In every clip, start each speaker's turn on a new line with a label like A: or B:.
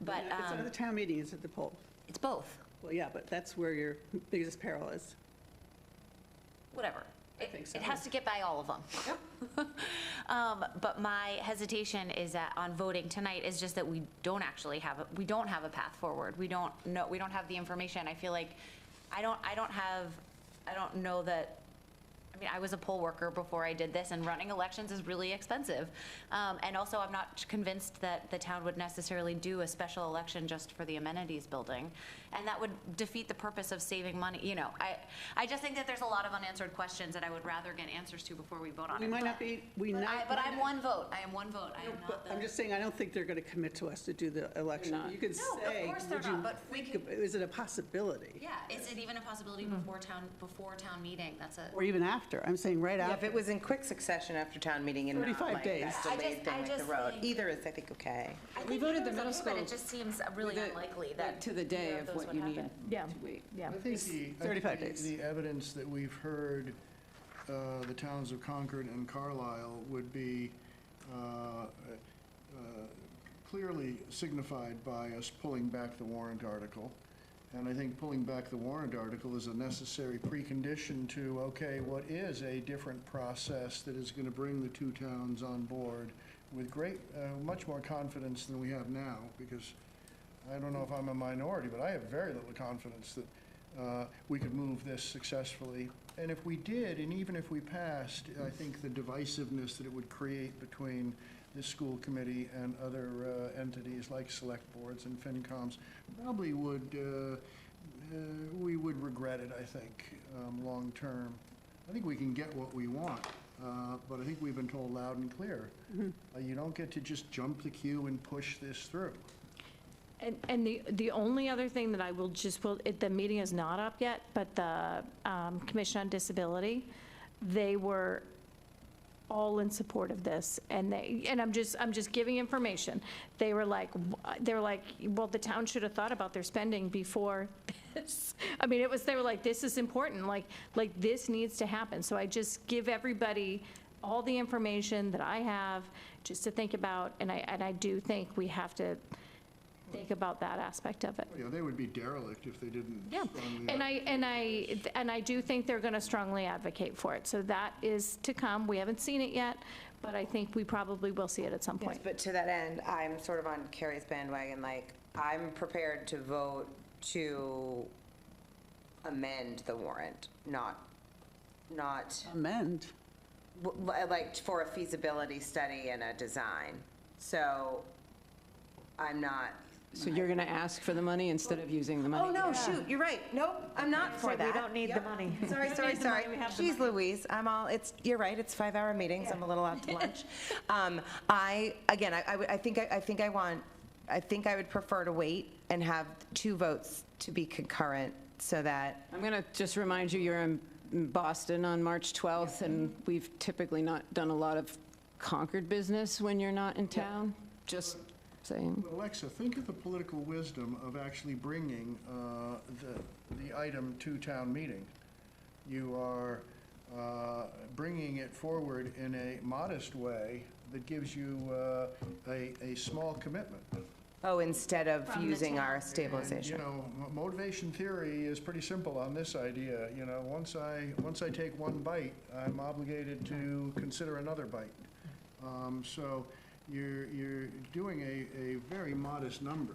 A: But
B: It's not
A: um,
B: the town meeting, it's at the poll.
A: it's both,
B: Well, yeah, but that's where your biggest peril is.
A: whatever.
B: I
A: It-
B: think so.
A: It has to get by all of them. Um, But my hesitation is that on voting tonight is just that we don't actually have, a we don't have a path forward. We don't know, we don't have the information. I feel like, I don't, I don't have, I don't know that, I mean, I was a poll worker before I did this, and running elections is really expensive. Um, And also, I'm not convinced that the town would necessarily do a special election just for the amenities building. And that would defeat the purpose of saving money, you know. I, I just think that there's a lot of unanswered questions that I would rather get answers to before we vote on it.
B: We might not be, we
A: But
B: not.
A: I, but I'm one vote, I am one vote, I am
B: But
A: not the.
B: I'm just saying, I don't think they're going to commit to us to do the election. You can
A: No, of
B: say,
A: course they're
B: would you
A: not, but we
B: think,
A: can-
B: ab- is it a possibility?
A: Yeah, is it even a possibility before town, before town meeting, that's a.
B: Or even after? I'm saying right
C: Yeah, if
B: after.
C: it was in quick succession after town meeting and not
B: 35
C: like
B: days.
C: that
A: I
C: delayed
A: just-
C: thing
A: I
C: like the
A: just
C: road,
A: think-
C: either is, I think, okay.
A: I
D: We
A: think
D: voted
A: it
D: the
A: was
D: middle
A: okay, But
D: school
A: it just seems really
D: the-
A: unlikely that.
D: to the day
A: either
D: of
A: those
D: what
A: would
D: you
A: happen.
D: need
E: Yeah.
D: to wait.
E: Yeah.
F: I think the. I think
B: 35
F: the-
B: days.
F: The evidence that we've heard, uh, the towns of Concord and Carlisle would be uh, uh, clearly signified by us pulling back the warrant article. And I think pulling back the warrant article is a necessary precondition to, okay, what is a different process that is going to bring the two towns on board with great, uh, much more confidence than we have now, because I don't know if I'm a minority, but I have very little confidence that uh, we could move this successfully. And if we did, and even if we passed, I think the divisiveness that it would create between the school committee and other uh, entities like select boards and FinComs probably would, uh, uh, we would regret it, I think, um, long-term. I think we can get what we want, uh, but I think we've been told loud and clear. uh, You don't get to just jump the queue and push this through.
E: And, and the, the only other thing that I will just, well, it- the meeting is not up yet, but the um, Commission on Disability, they were all in support of this, and they, and I'm just, I'm just giving information. They were like, they were like, well, the town should have thought about their spending before this. I mean, it was, they were like, this is important, like, like, this needs to happen. So I just give everybody all the information that I have, just to think about, and I, and I do think we have to think about that aspect of it.
F: Yeah, they would be derelict if they didn't.
E: Yeah,
F: strongly
E: and I, and I, and I do think they're going to strongly advocate for it, so that is to come. We haven't seen it yet, but I think we probably will see it at some
C: Yes,
E: point.
C: But to that end, I'm sort of on Carrie's bandwagon, like, I'm prepared to vote to amend the warrant, not, not,
B: Amend.
C: w- w- like, for a feasibility study and a design. So I'm not,
D: So you're going to ask for the money instead of using the money?
C: oh, no, shoot, you're right, nope, I'm not for that.
G: We don't need the
C: Yep.
G: money.
C: Sorry, sorry, sorry. Jeez Louise, I'm all, it's, you're right, it's five-hour meetings, I'm a little out to lunch. Um, I, again, I- I, would- I think, I I think I want, I think I would prefer to wait and have two votes to be concurrent, so that,
D: I'm going to just remind you, you're in Boston on March 12th, and we've typically not done a lot of Concord business when you're not in town, just saying.
F: But Alexa, think of the political wisdom of actually bringing uh, the, the item to town meeting. You are uh, bringing it forward in a modest way that gives you uh, a, a small commitment.
C: oh, instead of using our stabilization.
F: And, you know, mo- motivation theory is pretty simple on this idea, you know, once I, once I take one bite, I'm obligated to consider another bite. Um, So you're, you're doing a, a very modest number.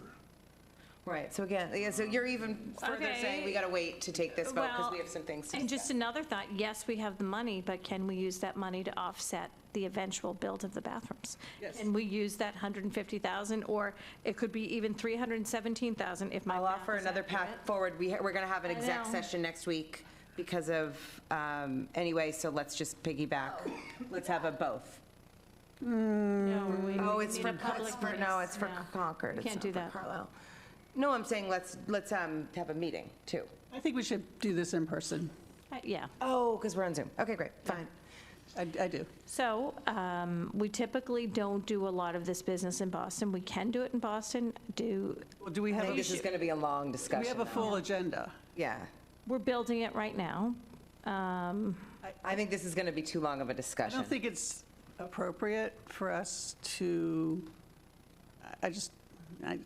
C: Right, so again, yeah, so you're even further saying we gotta wait to take this vote, because we have some things to
E: And just
C: discuss.
E: another thought, yes, we have the money, but can we use that money to offset the eventual build of the bathrooms?
B: Yes.
E: Can we use that 150,000, or it could be even 317,000 if my
C: I'll
E: math
C: offer
E: is
C: another
E: accurate.
C: path forward. We, ha- we're gonna have an
E: I
C: exec
E: know.
C: session next week because of, um, anyway, so let's just piggyback. Let's have a both.
E: No, we-
C: Oh,
E: we
C: it's
E: need
C: for,
E: a public
C: it's for, no,
E: voice.
C: it's for
E: No.
C: Concord.
E: We
C: It's
E: can't
C: not
E: do
C: for
E: that.
C: Carlisle. No, I'm saying let's, let's, um, have a meeting too.
B: I think we should do this in person.
E: Uh, Yeah.
C: Oh, because we're on Zoom. Okay, great, fine.
B: I, I do.
E: So um, we typically don't do a lot of this business in Boston. We can do it in Boston, do,
B: Well, Do we
C: I
B: have,
C: think this is
B: a-
C: gonna be a long
B: do
C: discussion.
B: we have a
C: though.
B: full agenda?
C: Yeah.
E: we're building it right now. Um,
C: I think this is gonna be too long of a
B: I
C: discussion.
B: don't think it's appropriate for us to, I- I just, I,